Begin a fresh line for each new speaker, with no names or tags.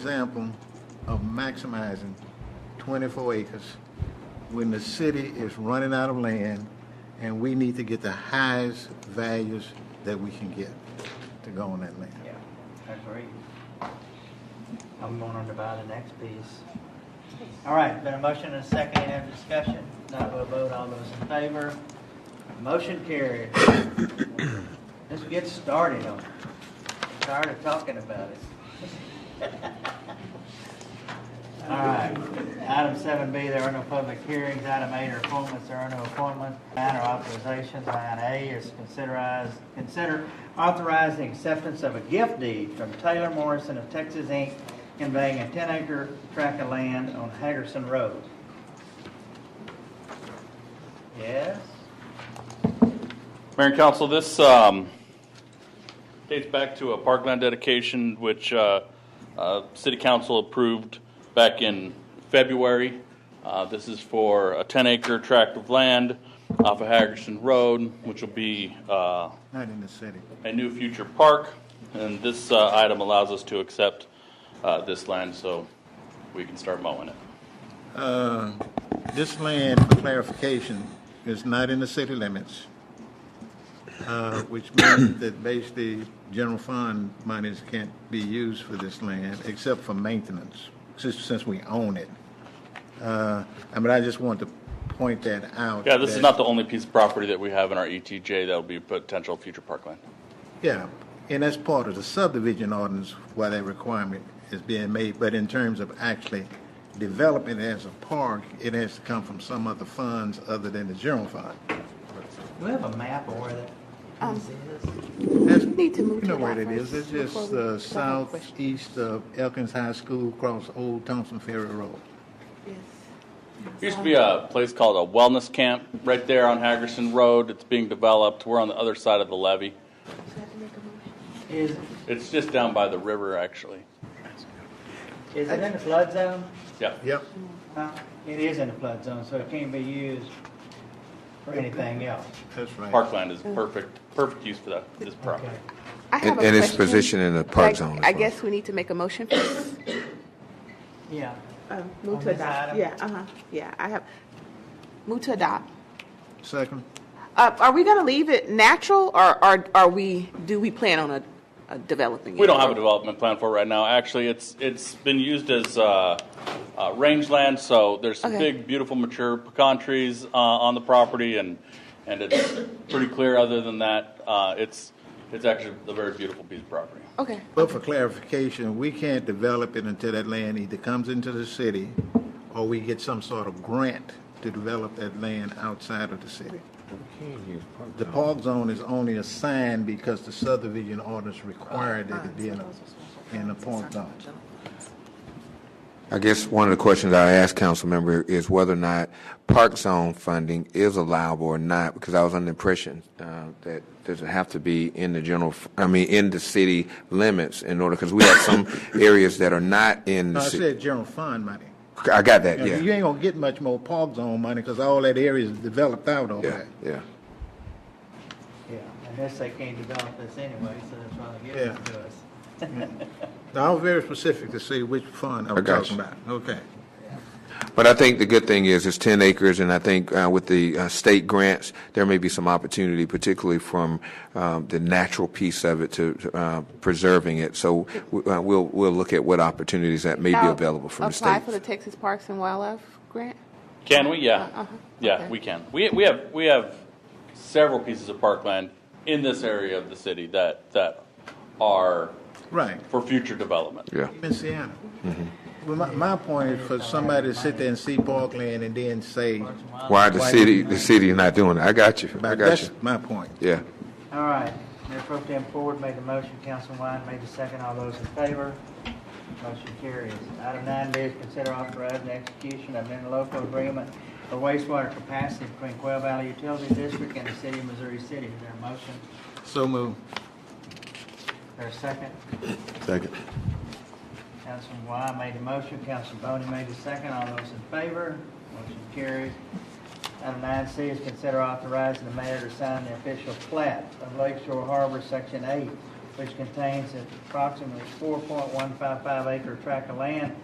example of maximizing 24 acres when the city is running out of land and we need to get the highest values that we can get to go on that land.
Yeah, I agree. I'm going on to buy the next piece. All right, been a motion and a second, any other discussion? Not a vote, all those in favor? Motion carried. Let's get started on it. I'm Tired of talking about it. All right, item seven B, there are no public hearings. Item eight are appointments, there are no appointments. Nine are authorizations. Line A is considerize, consider authorizing acceptance of a gift deed from Taylor Morrison of Texas Inc. conveying a ten acre tract of land on Hagerson Road. Yes?
Mayor and Council, this um, dates back to a parkland dedication which uh, uh, City Council approved back in February. Uh, This is for a 10-acre tract of land off of Hagerson Road, which will be uh,
Not in the city.
a new future park. And this uh, item allows us to accept uh, this land so we can start mowing it.
Uh, This land, for clarification, is not in the city limits, uh, which means that basically general fund monies can't be used for this land except for maintenance, since, since we own it. Uh, I mean, I just want to point that out.
Yeah, this is
that-
not the only piece of property that we have in our ETJ that will be potential future parkland.
Yeah, and that's part of the subdivision ordinance why that requirement is being made, but in terms of actually developing it as a park, it has to come from some other funds other than the general fund.
Do we have a map of where that
Um,
piece is?
That's,
Need to move
you
to
know where
that
it is, it's
first before
just
we-
uh,
I have a question.
southeast of Elkins High School across Old Thompson Ferry Road.
Yes.
There used to be a place called a wellness camp right there on Hagerson Road. It's being developed. We're on the other side of the levee.
So I have to make a
Is,
motion.
It's just down by the river, actually.
is it in the flood zone?
Yeah.
Yep.
Huh? It is in the flood zone, so it can't be used for anything else.
That's right.
Parkland is perfect, perfect use for that, this property.
Okay.
I have a
And- and it's
question.
positioned in the park
Like,
zone as
I
well.
guess we need to make a motion first.
Yeah.
Um,
On
Move to
this
adopt.
item?
Yeah, uh-huh, yeah, I have, move to adopt.
Second,
Uh, Are we going to leave it natural, or are are we, do we plan on a- a developing it?
We don't have a development plan for it right now. Actually, it's, it's been used as, uh, uh, rangeland, so there's some
Okay.
big, beautiful, mature pecan trees, uh, on the property and, and it's pretty clear other than that. Uh, it's, it's actually a very beautiful piece of property.
Okay,
but for clarification, we can't develop it until that land either comes into the city or we get some sort of grant to develop that land outside of the city. The park zone is only assigned because the subdivision ordinance required that it be in a, in a park zone.
I guess one of the questions I asked council member is whether or not park zone funding is allowable or not, because I was under the impression uh, that does it have to be in the general, f- I mean, in the city limits in order, because we have some areas that are not in
No,
the
I
city.
said general fund money.
I got that,
Now, You
yeah.
ain't gonna get much more park zone money, cause all that area is developed out over
Yeah,
there.
yeah.
Yeah, unless they can't develop this anyway, so that's why they give
Yeah.
it to us.
Now, I was very specific to see which fund I
I
was
got
talking
you.
about, okay.
But I think the good thing is, it's 10 acres, and I think uh, with the uh, state grants, there may be some opportunity, particularly from um, the natural piece of it to uh, preserving it. So w- uh, we'll, we'll look at what opportunities that may be
Now,
available from the state.
Apply for the Texas Parks and Wildlife Grant?
Can we? Yeah.
Uh-huh.
Yeah,
Okay.
we can. We, we have, we have several pieces of parkland in this area of the city that, that are
Right,
for future development.
Yeah.
in Sienna.
Mm-hmm.
Well, my, my point is for somebody to sit there and see parkland and then say,
Why the
Why
city, the city is not doing it. I got you. I got you.
that's my point.
Yeah.
All right, Mayor Pro Tem Ford made the motion, Councilman Wine made the second, all those in favor? Motion carries. Item nine B is consider authorizing the execution of an interlocal agreement for wastewater capacity between Quail Valley Utility District and the City of Missouri City. Is there a motion?
So move.
Is there a second?
Second.
Councilman Y made a motion, Councilman Boney made a second, all those in favor, motion carries. Item nine C is consider authorizing the mayor to sign the official plat of Lake Shore Harbor, section eight, which contains approximately 4.155 acre tract of land